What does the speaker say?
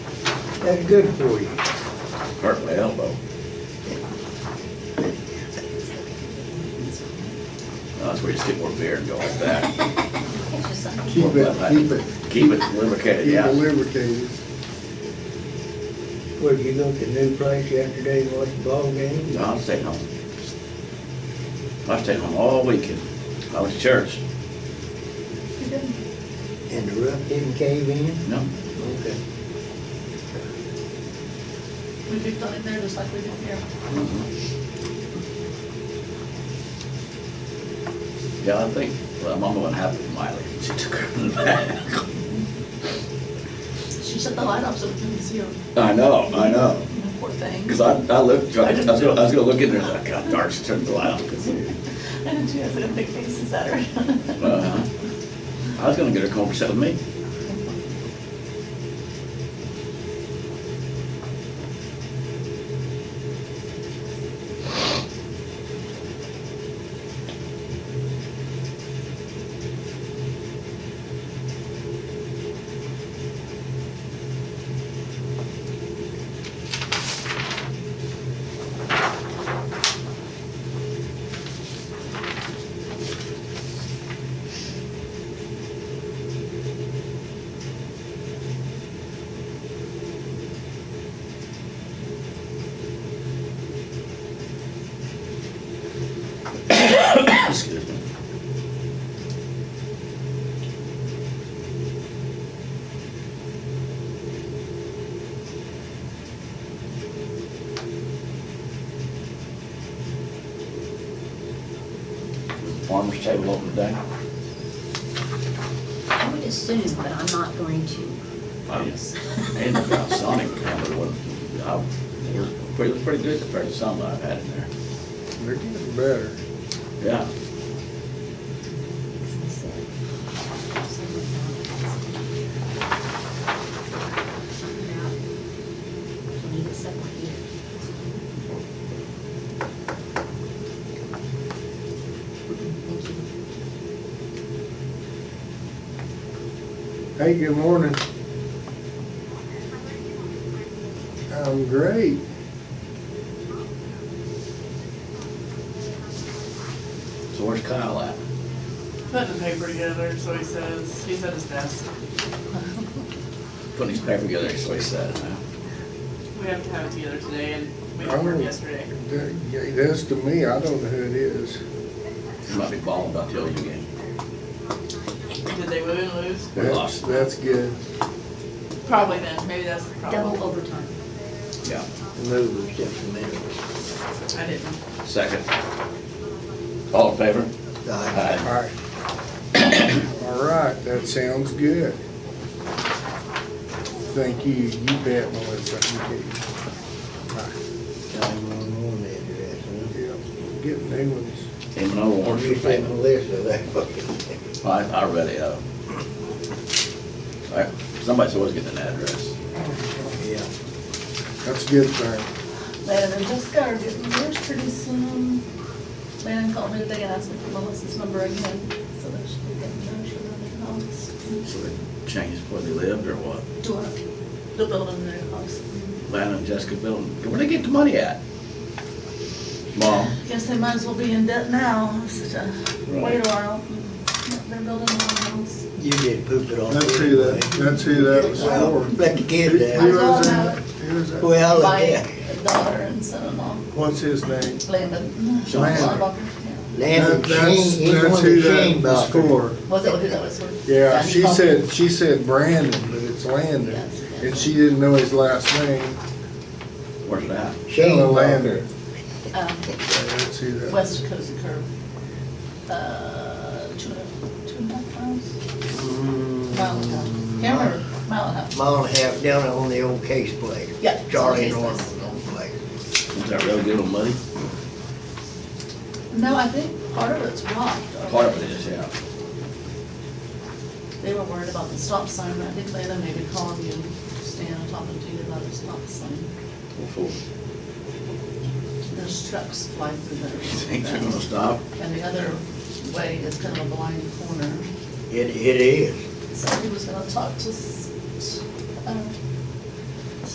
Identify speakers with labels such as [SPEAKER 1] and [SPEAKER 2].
[SPEAKER 1] That's good for you.
[SPEAKER 2] hurt my elbow. That's where you just get more beer and go like that.
[SPEAKER 3] It's just something.
[SPEAKER 4] Keep it, keep it,
[SPEAKER 2] Keep it lubricated,
[SPEAKER 4] keep it
[SPEAKER 2] yeah.
[SPEAKER 4] lubricated.
[SPEAKER 1] Where'd you go to the new place yesterday and watch the ball game?
[SPEAKER 2] No, I was staying home. I was staying home all weekend. I was at church,
[SPEAKER 1] And the roof didn't cave in?
[SPEAKER 2] you know?
[SPEAKER 1] Okay.
[SPEAKER 3] We do something there just like we did here.
[SPEAKER 2] Mm-hmm. Yeah, I think, well, Mama wasn't happy with Miley. She took her back.
[SPEAKER 3] She shut the light off so we couldn't see her.
[SPEAKER 2] I know, I know.
[SPEAKER 3] Poor thing.
[SPEAKER 2] Cause I, I looked, I was gonna, I was gonna look in there, like, God, dark, she turned the light off. 'Cause,
[SPEAKER 3] I didn't, she has a big face at her.
[SPEAKER 2] uh, I was gonna get her to come over and sit with me. Excuse me. Farmer's table open today?
[SPEAKER 5] I would assume, but I'm not going to.
[SPEAKER 2] Yes. And about Sonic, I remember what, I, it was Uh, pretty, it was pretty good compared to some I've had in there.
[SPEAKER 4] They're getting better.
[SPEAKER 2] Yeah,
[SPEAKER 5] Need it somewhere here. Thank
[SPEAKER 4] Hey,
[SPEAKER 5] you.
[SPEAKER 4] good morning. I'm great.
[SPEAKER 2] so where's Kyle at?
[SPEAKER 6] Put the paper together, so he says, he's at his desk.
[SPEAKER 2] Putting his paper together, so he said, huh?
[SPEAKER 6] We have to have it together today, and we had work
[SPEAKER 4] Oh.
[SPEAKER 6] yesterday.
[SPEAKER 4] That- yeah, That's to me, I don't know who it is.
[SPEAKER 2] He might be balling about the OU game.
[SPEAKER 6] Did they win and lose?
[SPEAKER 2] We
[SPEAKER 4] That's,
[SPEAKER 2] lost.
[SPEAKER 4] that's good.
[SPEAKER 6] Probably then, maybe that's the
[SPEAKER 5] Double
[SPEAKER 6] problem.
[SPEAKER 5] overtime.
[SPEAKER 2] Yeah,
[SPEAKER 1] Move it just a minute.
[SPEAKER 6] I didn't.
[SPEAKER 2] second. All in favor?
[SPEAKER 1] Aye.
[SPEAKER 2] Aye.
[SPEAKER 4] All right. All right, that sounds good. Thank you, you bet, Melissa. You bet.
[SPEAKER 1] Time on that dress, huh?
[SPEAKER 4] Yeah, Get new ones.
[SPEAKER 2] Even though Warren's
[SPEAKER 1] You
[SPEAKER 2] your
[SPEAKER 1] said
[SPEAKER 2] favorite.
[SPEAKER 1] Melissa, that fucking.
[SPEAKER 2] I, I read it, uh. I- Somebody's always getting an address.
[SPEAKER 1] Yeah.
[SPEAKER 4] That's a good thing.
[SPEAKER 3] Landon and Jessica are getting yours pretty soon. Landon called me today and asked me for Melissa's number again, so that she could get the notion of the house.
[SPEAKER 2] So they changed where they lived or what?
[SPEAKER 3] Do what? Mm-hmm. The building their house.
[SPEAKER 2] Lana and Jessica Bill, where'd they get the money at? Mom?
[SPEAKER 3] Guess they might as well be in debt now, such a
[SPEAKER 2] Right.
[SPEAKER 3] wait a while. They're building their own house.
[SPEAKER 1] You did poop it on.
[SPEAKER 4] That's who that, that's who that was
[SPEAKER 1] Well,
[SPEAKER 4] for.
[SPEAKER 1] let the kid
[SPEAKER 4] Who
[SPEAKER 1] down.
[SPEAKER 4] was that? Who was that?
[SPEAKER 1] Well,
[SPEAKER 3] My
[SPEAKER 1] yeah.
[SPEAKER 3] daughter and son-in-law,
[SPEAKER 4] What's his name?
[SPEAKER 3] Landon.
[SPEAKER 2] Landon.
[SPEAKER 3] Landon, yeah.
[SPEAKER 1] Lamb,
[SPEAKER 4] That- That's,
[SPEAKER 1] he, he's
[SPEAKER 4] that's
[SPEAKER 1] one
[SPEAKER 4] who
[SPEAKER 1] of the
[SPEAKER 4] that
[SPEAKER 1] shame
[SPEAKER 4] was
[SPEAKER 1] boxers.
[SPEAKER 4] for.
[SPEAKER 3] Was that who that was with?
[SPEAKER 4] Yeah,
[SPEAKER 3] he
[SPEAKER 4] she
[SPEAKER 3] called-
[SPEAKER 4] said, she said Brandon, but it's Landon,
[SPEAKER 3] Yes, yeah.
[SPEAKER 4] and she didn't know his last name.
[SPEAKER 2] Where's it at?
[SPEAKER 1] Shame
[SPEAKER 4] Ella
[SPEAKER 1] boxer.
[SPEAKER 3] Um,
[SPEAKER 4] Landon. That's who that was.
[SPEAKER 3] West Coast curve. Uh, two and a, two and a half miles? Mile and a half. Can't remember, mile and a half.
[SPEAKER 1] Mile and a half down on the old case place.
[SPEAKER 3] Yeah, it's on
[SPEAKER 1] Charlie
[SPEAKER 3] Case
[SPEAKER 1] Norman
[SPEAKER 3] Place.
[SPEAKER 1] was on place.
[SPEAKER 2] Is that real good on money?
[SPEAKER 3] No, I think part of it's rocked. or-
[SPEAKER 2] Part of it is, yeah.
[SPEAKER 3] They were worried about the stop sign, but I think Lana maybe called you, Stan, and talking to you about the stop sign.
[SPEAKER 2] Well, fool.
[SPEAKER 3] There's trucks flying through
[SPEAKER 2] Ain't you gonna
[SPEAKER 3] there.
[SPEAKER 2] stop?
[SPEAKER 3] And the other way is kind of a blind corner.
[SPEAKER 1] It, it is.
[SPEAKER 3] So he was gonna talk to, s- uh,